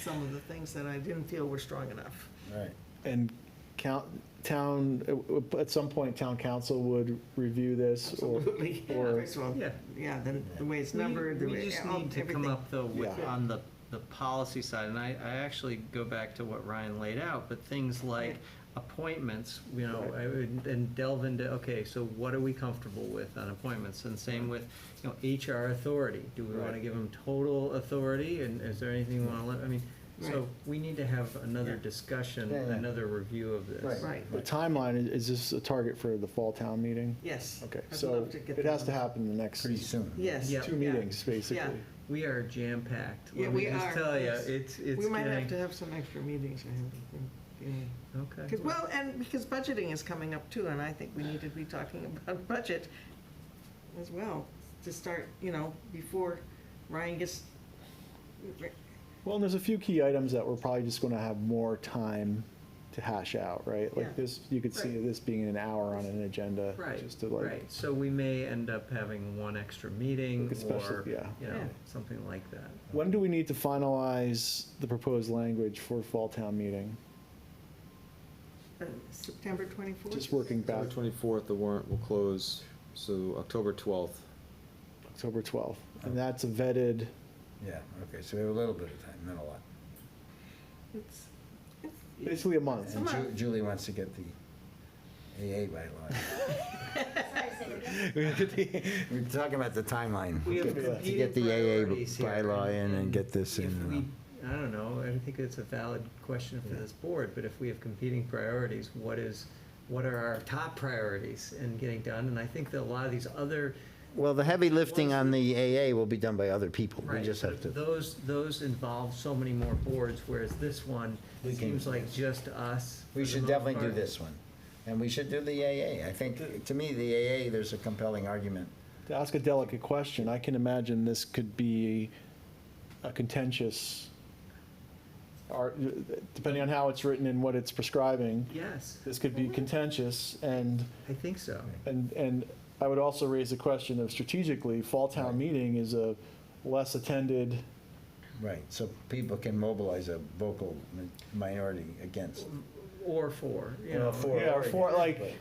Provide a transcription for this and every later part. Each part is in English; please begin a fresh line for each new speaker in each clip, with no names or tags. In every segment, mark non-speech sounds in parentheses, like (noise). some of the things that I didn't feel were strong enough.
Right.
And count, town, at some point, town council would review this
(laughs)
or,
Absolutely.
(laughs) or,
First of all,
Yeah.
yeah, then the way it's
We-
numbered, the way.
We just
all-
need to come
everything.
up though with,
Yeah.
on the, the policy side, and I, I actually go back to what Ryan laid out, but things like
Right.
appointments, you know, I would- and delve into, okay, so what are we comfortable with on appointments? And same with, you know, HR authority, do we wanna
Right.
give them total authority, and is there anything we wanna, let- I mean,
Right.
so we need to have another
Yeah.
discussion,
Yeah, yeah.
another review of this.
Right.
the timeline, is- is this a target for the fall town meeting?
Yes.
Okay,
I'd
so
love to get
it has
that.
to happen in the next
Pretty soon.
Yes.
Yeah.
two
yeah.
meetings,
Yeah.
basically.
We are jam-packed,
Yeah,
let me
we are.
just tell you,
Yes.
it's, it's
We might have to
getting-
have some extra meetings, I have, yeah.
Okay.
'Cause- well, and because budgeting is coming up too, and I think we need to be talking (laughs) about budget as well, to start, you know, before Ryan gets,
Well, and there's a few key items that we're probably just going to have more time to hash out, right?
Yeah.
Like this, you could see
Right.
this being an hour on an agenda.
Right,
Just to like,
right, so we may end up having one extra meeting
Look at special-
or,
yeah.
you know,
Yeah.
something like that.
when do we need to finalize the proposed language for fall town meeting?
uh, September 24th?
Just working back,
October twenty-fourth, the warrant will close, so October twelfth.
October 12th.
Oh.
And that's a vetted,
Yeah, okay, so we have a little bit of time, not a lot.
It's, it's,
basically a month. (laughs)
And Ju-
Somehow-
Julie wants to get the AA bylaw.
(laughs)
Sorry, say it again.
We're talking about the timeline.
We have
Get the- to
To get
competing
the AA
priorities here.
bylaw in and get this
If we,
in. uh,
I don't know, I think it's a valid question for this board, but if we have competing priorities, what is, what are our top priorities in getting done? And I think that a lot of these other,
Well, the heavy lifting on the AA will be done by other people. We
right,
just have
but
to,
those, those involve so many more boards, whereas this one
We can-
seems like just us. for
we
the
should
most
definitely do
part.
this one. And we should do the AA. I think, to me, the AA, there's a compelling argument.
To ask a delicate question, I can imagine this could be a contentious, ar- depending on how it's written and what it's prescribing,
Yes,
this could be contentious, and,
I think so.
and, and I would also raise the question of strategically, fall town meeting is a less attended,
Right, so people can mobilize a vocal mi- minority against.
Or four, you
Well,
know.
for-
yeah, or for, like,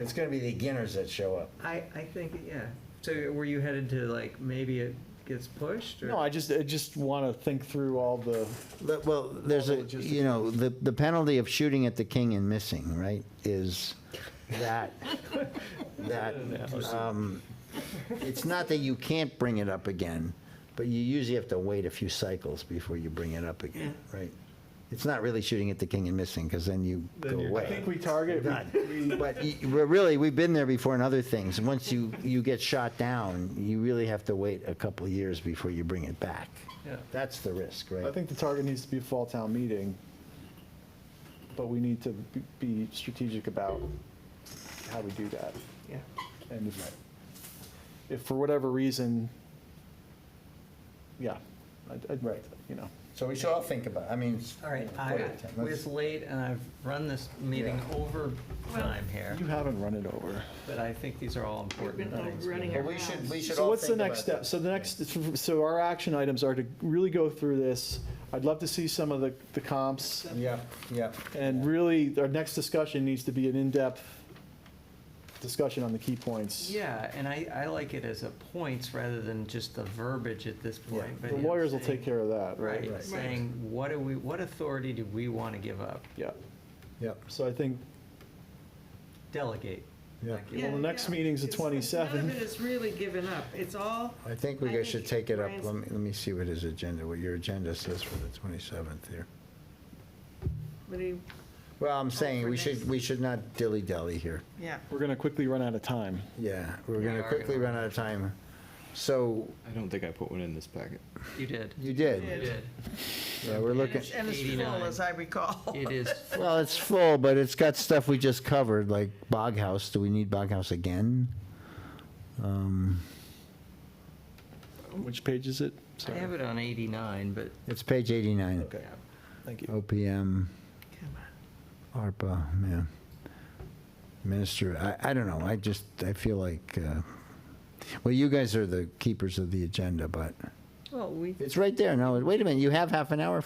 It's gonna be the beginners that show up.
I, I think, yeah. So were you headed to like, maybe it gets pushed or?
no, I just, I just want to think through all the,
Le- Well, there's a, you know, the, the penalty of shooting at the king and missing, right, is that, that,
(laughs)
um, it's not that you can't bring it up again, but you usually have to wait a few cycles before you bring it up again, right? It's not really shooting at the king and missing, because then you go away.
I think we target, we-
But y- we're really, we've been there before in other things. Once you, you get shot down, you really have to wait a couple of years before you bring it back.
Yeah.
That's the risk, right?
I think the target needs to be a fall town meeting, but we need to be- be strategic about how we do that.
(laughs) yeah.
And if, if for whatever reason, yeah, I'd, I'd,
Right.
you know.
So we should all think about, I mean.
All right, I, it's late and I've run this meeting
Yeah.
over time here,
You haven't run it over.
but I think these are all important
been
things.
overrunning
man.
it.
we should, we should
So
all
what's the
think
next
about
step? So the next, so our action items are to really go through this. I'd love to see some of the, the comps.
that. Yeah, yeah.
And really, our next discussion needs to be an in-depth discussion on the key points.
Yeah, and I, I like it as a points rather than just the verbiage at this point. but
The
you know,
lawyers will
saying-
take care of that, right?
Right, saying, what do we, what authority do we want to give up?
Yeah,
Yep.
so I think
Delegate.
Yeah.
Not give
Yeah,
the next
yeah.
meeting's the
It's- it's- None
27th.
of it is really given up. It's all,
I think we
I
guys
think
should take it up.
Brian's-
Let me, let me see what his agenda, what your agenda says for the 27th here.
what do you-
Well, I'm saying
for
we
next-
should, we should not dilly-dally here.
yeah.
we're going to quickly run out of time.
Yeah, we're
We
gonna
are
quickly
gonna-
run out of time. So
I don't think I put one in this packet.
You did.
you
Yeah.
did.
You did.
Yeah, we're
And
looking.
it's and it's full,
89.
as I recall.
It is
Well, it's full, but it's got stuff we just covered, like Bog House. Do we need Bog House again? Um,
Which page is it?
I
Sorry.
have it on 89, but
It's page 89.
Okay, thank you.
OPM,
Come on.
ARPA, yeah. Minister, I, I don't know. I just, I feel like, uh, well, you guys are the keepers of the agenda, but
Well, we
it's right there. No, wait a minute. You have half an hour